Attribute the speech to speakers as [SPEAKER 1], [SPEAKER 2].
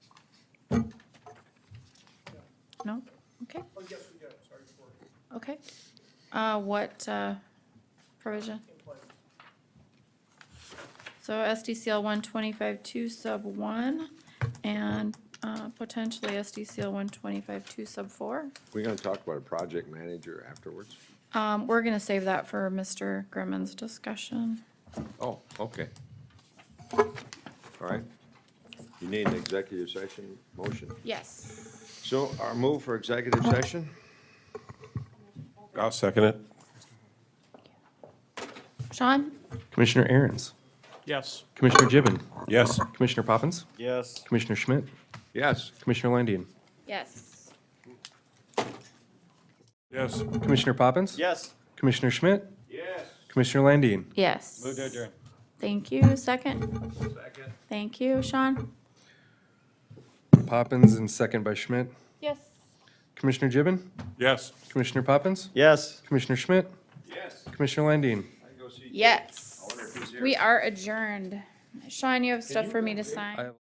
[SPEAKER 1] No? Okay. Okay. Uh, what, uh, provision? So SDCL one twenty-five two sub one and, uh, potentially SDCL one twenty-five two sub four.
[SPEAKER 2] We're gonna talk about a project manager afterwards?
[SPEAKER 1] Um, we're gonna save that for Mr. Grimmon's discussion.
[SPEAKER 2] Oh, okay. All right. You need an executive session motion.
[SPEAKER 1] Yes.
[SPEAKER 2] So our move for executive session?
[SPEAKER 3] I'll second it.
[SPEAKER 1] Sean?
[SPEAKER 4] Commissioner Aaron's,
[SPEAKER 5] Yes.
[SPEAKER 4] Commissioner Gibbon,
[SPEAKER 3] Yes.
[SPEAKER 4] Commissioner Poppins,
[SPEAKER 5] Yes.
[SPEAKER 4] Commissioner Schmidt,
[SPEAKER 2] Yes.
[SPEAKER 4] Commissioner Landian,
[SPEAKER 1] Yes.
[SPEAKER 3] Yes.
[SPEAKER 4] Commissioner Poppins,
[SPEAKER 5] Yes.
[SPEAKER 4] Commissioner Schmidt,
[SPEAKER 2] Yes.
[SPEAKER 4] Commissioner Landian.
[SPEAKER 1] Yes.
[SPEAKER 5] Move to adjourn.
[SPEAKER 1] Thank you. Second? Second. Thank you, Sean?
[SPEAKER 4] Poppins and second by Schmidt.
[SPEAKER 1] Yes.
[SPEAKER 4] Commissioner Gibbon,
[SPEAKER 3] Yes.
[SPEAKER 4] Commissioner Poppins,
[SPEAKER 5] Yes.
[SPEAKER 4] Commissioner Schmidt,
[SPEAKER 2] Yes.
[SPEAKER 4] Commissioner Landian.
[SPEAKER 2] I can go see.
[SPEAKER 1] Yes.
[SPEAKER 2] wonder if he's here.
[SPEAKER 1] We are adjourned. Sean, you have stuff for me to sign?
[SPEAKER 4] I-